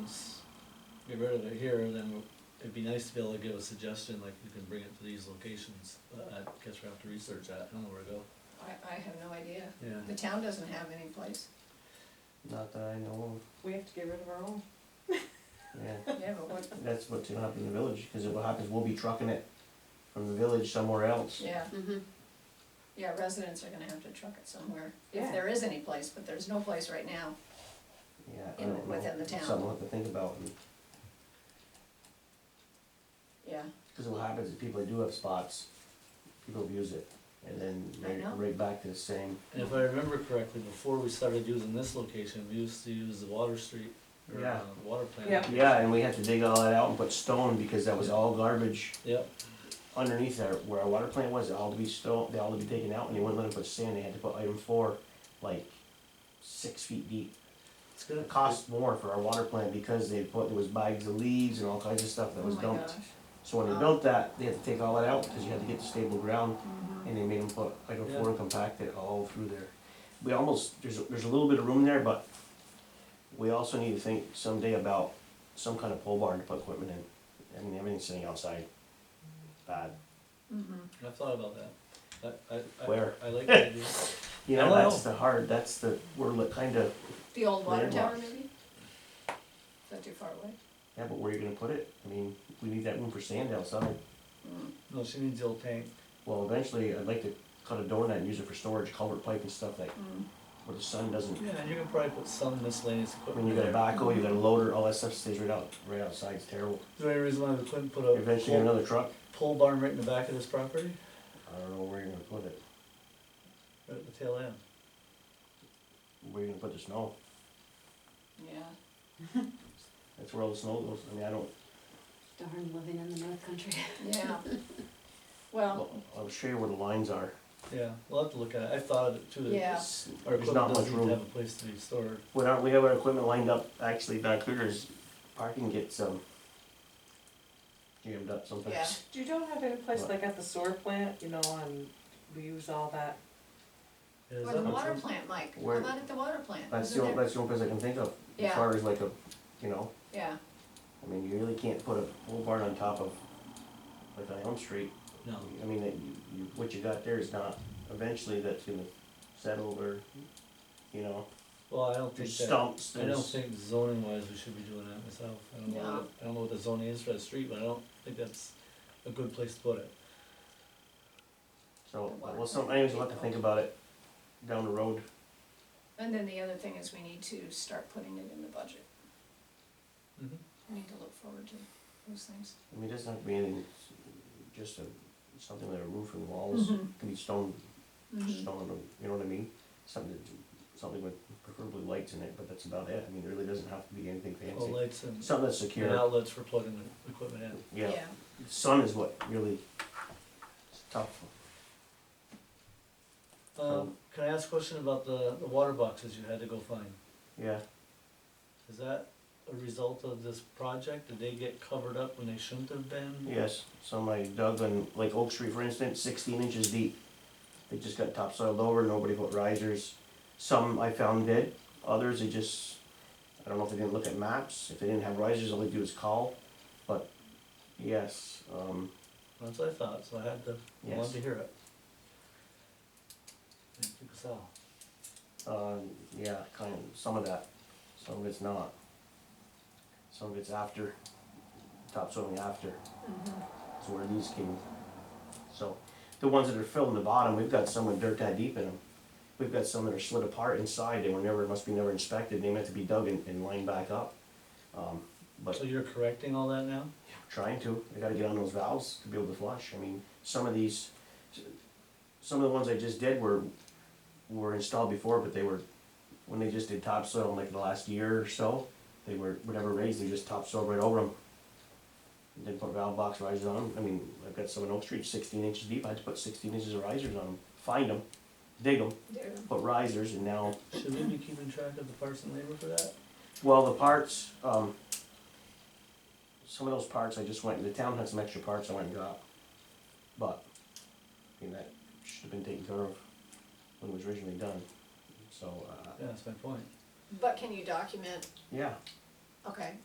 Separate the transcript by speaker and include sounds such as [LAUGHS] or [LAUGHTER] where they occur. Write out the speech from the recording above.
Speaker 1: get rid of it here, then it'd be nice to be able to give a suggestion, like you can bring it to these locations. But I guess we will have to research that, I don't know where to go.
Speaker 2: I, I have no idea. The
Speaker 1: Yeah.
Speaker 2: town doesn't have any place.
Speaker 3: Not that I know
Speaker 4: We have to get rid of our own.
Speaker 3: of, yeah.
Speaker 2: Yeah, but what,
Speaker 3: That's what's gonna happen in the village, because what happens, we'll be trucking it from the village somewhere else.
Speaker 2: yeah,
Speaker 4: Mm-hmm.
Speaker 2: yeah, residents are gonna have to truck it somewhere,
Speaker 4: Yeah.
Speaker 2: if there is any place, but there's no place right now.
Speaker 3: Yeah, I
Speaker 2: In-
Speaker 3: don't know.
Speaker 2: within the
Speaker 3: It's
Speaker 2: town.
Speaker 3: Something we'll have to think about,
Speaker 2: Yeah,
Speaker 3: because what happens is people that do have spots, people abuse it, and then
Speaker 2: I
Speaker 3: right,
Speaker 2: know.
Speaker 3: right back to the same.
Speaker 1: And if I remember correctly, before we started using this location, we used to use the water street, or, uh,
Speaker 3: Yeah.
Speaker 1: water plant.
Speaker 4: Yeah.
Speaker 3: Yeah, and we had to dig all that out and put stone, because that was all garbage
Speaker 1: Yep,
Speaker 3: underneath there, where our water plant was, it all to be stone, they all to be taken out, and they wouldn't let them put sand, they had to put item four, like, six feet deep.
Speaker 1: it's gonna
Speaker 3: It cost more for our water plant because they put, there was bags of leaves and all kinds of stuff that
Speaker 2: oh
Speaker 3: was
Speaker 2: my gosh.
Speaker 3: dumped. So when they built that, they had to take all that out because you had to get the stable ground
Speaker 2: Mm-hmm.
Speaker 3: and they made them put like a
Speaker 1: Yeah.
Speaker 3: four and compact it all through there. We almost, there's, a- there's a little bit of room there, but we also need to think someday about some kind of pole barn to put equipment in. I mean, everything's sitting outside. Bad,
Speaker 2: Mhm.
Speaker 1: I thought about that. I, I, I.
Speaker 3: Where?
Speaker 1: I [LAUGHS] like the idea.
Speaker 3: you
Speaker 1: I
Speaker 3: know,
Speaker 1: don't
Speaker 3: that's
Speaker 1: know.
Speaker 3: the hard, that's the, we're li- kind of,
Speaker 2: The old water tower
Speaker 3: Landlocked.
Speaker 2: maybe? Is that too far away?
Speaker 3: yeah, but where are you gonna put it? I mean, we need that room for sand outside.
Speaker 2: Mm.
Speaker 1: No, she needs the old tank.
Speaker 3: Well, eventually, I'd like to cut a door in that and use it for storage, culvert pipe and stuff like,
Speaker 2: Mm.
Speaker 3: where the sun doesn't.
Speaker 1: Yeah, and you can probably put some miscellaneous
Speaker 3: When you
Speaker 1: equipment
Speaker 3: got a
Speaker 1: there.
Speaker 3: backhoe, you got a loader, all that stuff stays right out, right outside, it's terrible.
Speaker 1: Is there any reason why we couldn't put a
Speaker 3: Eventually,
Speaker 1: pole,
Speaker 3: another truck,
Speaker 1: pole barn right in the back of this property,
Speaker 3: I don't know where you're gonna put it,
Speaker 1: right at the tail end?
Speaker 3: where you're gonna put the snow,
Speaker 2: Yeah,
Speaker 3: that's where all the snow goes, I mean, I don't,
Speaker 4: Darn living in the north country.
Speaker 2: yeah. Well,
Speaker 3: well, I'm sure you where the lines are.
Speaker 1: Yeah, we'll have to look at it. I thought of it too. that
Speaker 2: Yeah.
Speaker 3: It's-
Speaker 1: Our
Speaker 3: There's
Speaker 1: equipment
Speaker 3: not much
Speaker 1: doesn't need to
Speaker 3: room.
Speaker 1: have a place to be stored.
Speaker 3: When our, we have our equipment lined up, actually back there is, parking gets, um, jammed up
Speaker 2: Yeah.
Speaker 3: sometimes.
Speaker 4: You don't have any place
Speaker 3: What?
Speaker 4: like at the sewer plant, you know, and we use all that.
Speaker 1: Yeah, is
Speaker 2: or
Speaker 1: that
Speaker 2: the
Speaker 1: much
Speaker 2: water
Speaker 1: room?
Speaker 2: plant, Mike, how
Speaker 3: Where-
Speaker 2: about at the water plant?
Speaker 3: That's the
Speaker 2: Isn't
Speaker 3: only,
Speaker 2: there-
Speaker 3: that's the only place I can think of, as
Speaker 2: Yeah.
Speaker 3: far as like a, you know,
Speaker 2: Yeah,
Speaker 3: I mean, you really can't put a pole barn on top of, like on Elm Street.
Speaker 1: No,
Speaker 3: I mean, that you, you, what you got there is not, eventually that's gonna settle or, you know,
Speaker 1: well, I don't think
Speaker 3: there's
Speaker 1: that,
Speaker 3: stumps,
Speaker 1: I don't
Speaker 3: there's.
Speaker 1: think zoning wise, we should be doing that myself. I don't know,
Speaker 2: No.
Speaker 1: what- I don't know what the zoning is for the street, but I don't think that's a good place to put it.
Speaker 3: So,
Speaker 2: The water
Speaker 3: well, some,
Speaker 2: plant.
Speaker 3: anyways, we'll have to think about it down the road.
Speaker 2: and then the other thing is we need to start putting it in the budget.
Speaker 1: Mhm.
Speaker 3: Mm-hmm.
Speaker 2: We need to look forward to those things.
Speaker 3: I mean, it doesn't have to be anything, just a, something like a roof and walls,
Speaker 2: Mhm.
Speaker 3: could be stone,
Speaker 2: Mhm.
Speaker 3: stone, you know what I mean? Something, that- something with preferably lights in it, but that's about it. I mean, it really doesn't have to be anything
Speaker 1: Well,
Speaker 3: fancy.
Speaker 1: lights and
Speaker 3: Something that's
Speaker 1: and
Speaker 3: secure,
Speaker 1: outlets for plugging the equipment in.
Speaker 3: yeah. sun is what really is tough.
Speaker 1: Um, can I ask a question about the, the water boxes you had to go find?
Speaker 3: Yeah.
Speaker 1: Is that a result of this project? Did they get covered up when they shouldn't have been?
Speaker 3: Yes. Somebody dug on like Oak Street, for instance, sixteen inches deep. They just got topsoiled over. Nobody put risers. Some I found did. Others they just I don't know if they didn't look at maps. If they didn't have risers, all they do is call. But yes, um,
Speaker 1: That's what I thought, so I had to, I wanted
Speaker 3: Yes.
Speaker 1: to hear it. Thank you, Casal.
Speaker 3: uh, yeah, kind of some of that. Some of it's not. Some of it's after topsoiling after.
Speaker 2: Mhm.
Speaker 3: That's where these came. So, the ones that are filled in the bottom, we've got some with dirt that deep in them. We've got some that are slid apart inside, they were never, must be never inspected, they meant to be dug and, and lined back up. Um, but
Speaker 1: So you're correcting all that now?
Speaker 3: trying to, I gotta get on those valves to be able to flush, I mean, some of these, some of the ones I just did were, were installed before, but they were, when they just did topsoil in like the last year or so, they were, whatever raised, they just topsoiled right over them. Didn't put valve box risers on 'em. I mean, I've got some in Oak Street sixteen inches deep, I had to put sixteen inches of risers on them, find them, dig them,
Speaker 2: There.
Speaker 3: put risers, and now
Speaker 1: Should we be keeping track of the parts and labor for that?
Speaker 3: Well, the parts, um, some of those parts I just went, the town had some extra parts I went and got. But, I mean, that should have been taken care of when it was originally done, so, uh,
Speaker 1: Yeah, that's my point.
Speaker 2: But can you document,
Speaker 3: yeah.
Speaker 2: okay,